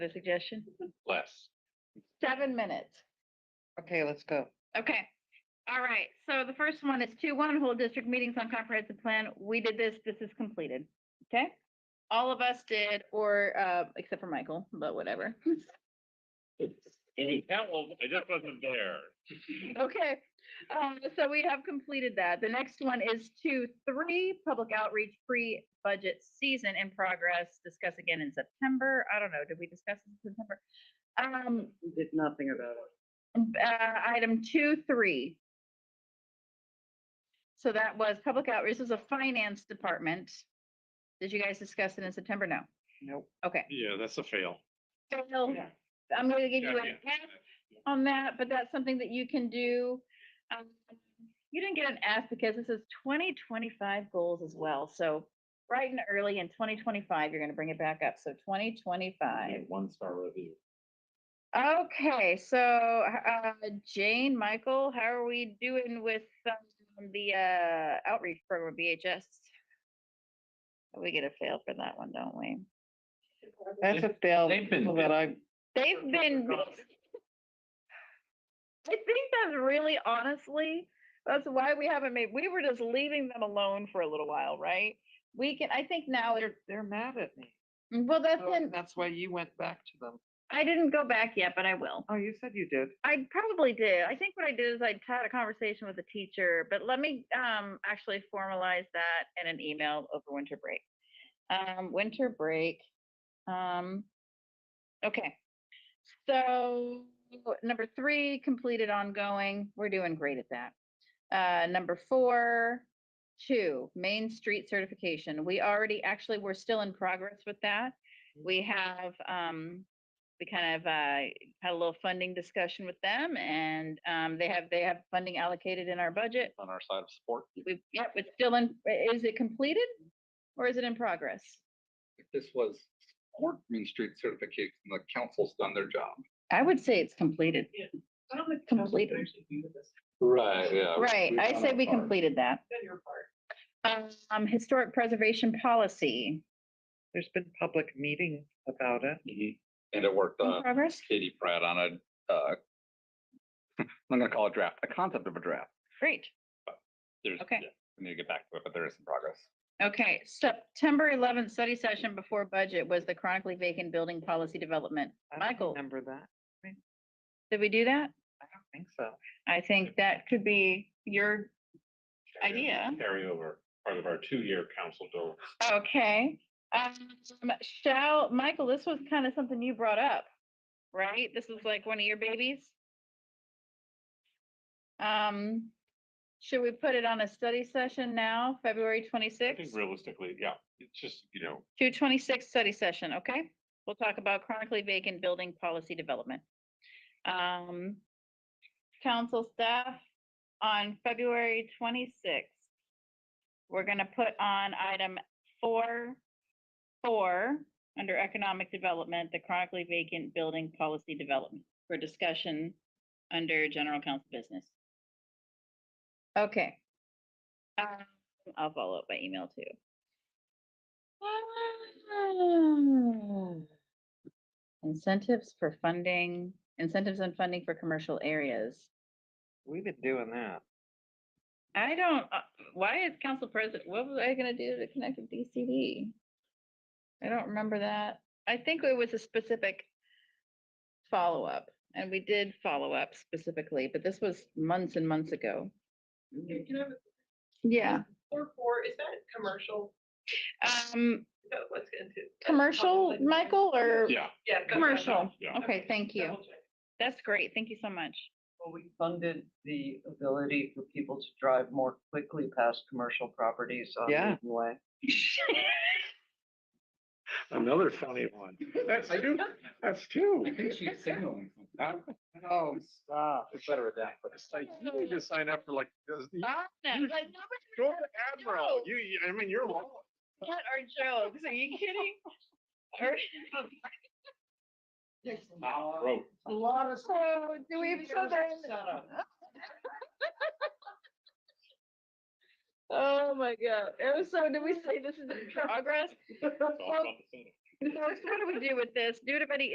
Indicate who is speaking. Speaker 1: a suggestion?
Speaker 2: less.
Speaker 1: Seven minutes.
Speaker 3: Okay, let's go.
Speaker 1: Okay. All right. So the first one is two one whole district meetings on comprehensive plan. We did this. This is completed. Okay? All of us did, or, uh, except for Michael, but whatever.
Speaker 2: That one, I just wasn't there.
Speaker 1: Okay, um, so we have completed that. The next one is two, three, public outreach pre-budget season in progress. Discuss again in September. I don't know, did we discuss this in September? Um,
Speaker 3: We did nothing about it.
Speaker 1: um, uh, item two, three. So that was public outreach. This is a finance department. Did you guys discuss it in September? No.
Speaker 3: Nope.
Speaker 1: Okay.
Speaker 2: Yeah, that's a fail.
Speaker 1: Phil,
Speaker 3: Yeah.
Speaker 1: I'm gonna give you
Speaker 2: Yeah,
Speaker 1: an
Speaker 2: yeah.
Speaker 1: F on that, but that's something that you can do. Um, You didn't get an F because this is twenty twenty-five goals as well, so bright and early in twenty twenty-five, you're gonna bring it back up, so twenty twenty-five.
Speaker 2: One star review.
Speaker 1: Okay, so, uh, Jane, Michael, how are we doing with um, the, uh, outreach program, BHS? We get a fail for that one, don't we?
Speaker 3: That's a fail
Speaker 2: they've been
Speaker 3: people that I,
Speaker 1: They've been. I think that's really honestly, that's why we haven't made, we were just leaving them alone for a little while, right? We can, I think now, it-
Speaker 3: they're, they're mad at me.
Speaker 1: well, that's
Speaker 3: So
Speaker 1: in,
Speaker 3: Oh, That's why you went back to them.
Speaker 1: I didn't go back yet, but I will.
Speaker 3: Oh, you said you did.
Speaker 1: I probably did. I think what I did is I had a conversation with a teacher, but let me um actually formalize that in an email over winter break. Um, winter break. Um, okay. So number three, completed ongoing. We're doing great at that. Uh, number four, two, Main Street certification. We already actually we're still in progress with that. We have um we kind of uh had a little funding discussion with them and um, they have, they have funding allocated in our budget.
Speaker 2: On our side of support.
Speaker 1: We've, yeah, it's still in, i- is it completed or is it in progress?
Speaker 4: if this was support Main Street certification, the council's done their job.
Speaker 1: I would say it's completed.
Speaker 5: I don't think.
Speaker 1: Completed.
Speaker 2: Right, yeah.
Speaker 1: Right, I say we completed that.
Speaker 5: your part.
Speaker 1: Um, historic preservation policy,
Speaker 3: There's been public meetings about it.
Speaker 4: And it worked,
Speaker 1: in
Speaker 4: uh,
Speaker 1: progress?
Speaker 4: Katie Pratt on a, uh, I'm gonna call it draft, a concept of a draft.
Speaker 1: Great.
Speaker 4: There's,
Speaker 1: Okay.
Speaker 4: yeah, we need to get back to it, but there is some progress.
Speaker 1: Okay, September eleventh study session before budget was the chronically vacant building policy development.
Speaker 3: I don't
Speaker 1: Michael.
Speaker 3: Remember that?
Speaker 1: Did we do that?
Speaker 3: I don't think so.
Speaker 1: I think that could be your idea.
Speaker 2: Carryover, part of our two-year council goal.
Speaker 1: Okay, um, shall, Michael, this was kind of something you brought up, right? This is like one of your babies? Um, should we put it on a study session now, February
Speaker 2: I think
Speaker 1: twenty-sixth?
Speaker 2: realistically, yeah, it's just, you know,
Speaker 1: Two twenty-six study session, okay? We'll talk about chronically vacant building policy development. Um, council staff, on February twenty-sixth, we're gonna put on item four, four, under economic development, the chronically vacant building policy development for discussion under general council business. Okay. Um, I'll follow up by email too. Ah. Incentives for funding, incentives and funding for commercial areas.
Speaker 3: We've been doing that.
Speaker 1: I don't, uh, why is council president, what was I gonna do to connect with DCD? I don't remember that. I think it was a specific follow-up, and we did follow up specifically, but this was months and months ago.
Speaker 5: Okay, Can I have a
Speaker 1: Yeah.
Speaker 5: four, four, is that commercial?
Speaker 1: Um,
Speaker 5: Is that what's into?
Speaker 1: commercial, Michael, or?
Speaker 2: yeah.
Speaker 5: Yeah. that's what I
Speaker 1: Commercial,
Speaker 5: thought.
Speaker 2: Yeah.
Speaker 1: okay, thank you.
Speaker 5: Double check.
Speaker 1: That's great, thank you so much.
Speaker 6: Well, we funded the ability for people to drive more quickly past commercial properties on
Speaker 3: Yeah.
Speaker 6: Maiden Way.
Speaker 2: Another funny one. That's two, that's two.
Speaker 4: she's signaling.
Speaker 3: Oh, stop.
Speaker 4: It's better than that, but it's like,
Speaker 2: You need to sign up for like, does the-
Speaker 1: Ah, no,
Speaker 2: You-
Speaker 1: like, nobody
Speaker 2: go to Admiral,
Speaker 1: No.
Speaker 2: you, you- I mean, you're. long.
Speaker 1: got our jokes, are you kidding? Or-
Speaker 2: Road.
Speaker 6: A lot of.
Speaker 1: So, do we have something? Oh my god, It was so did we say this is in progress?
Speaker 2: It's all about the center.
Speaker 1: So what do we do with this? Do anybody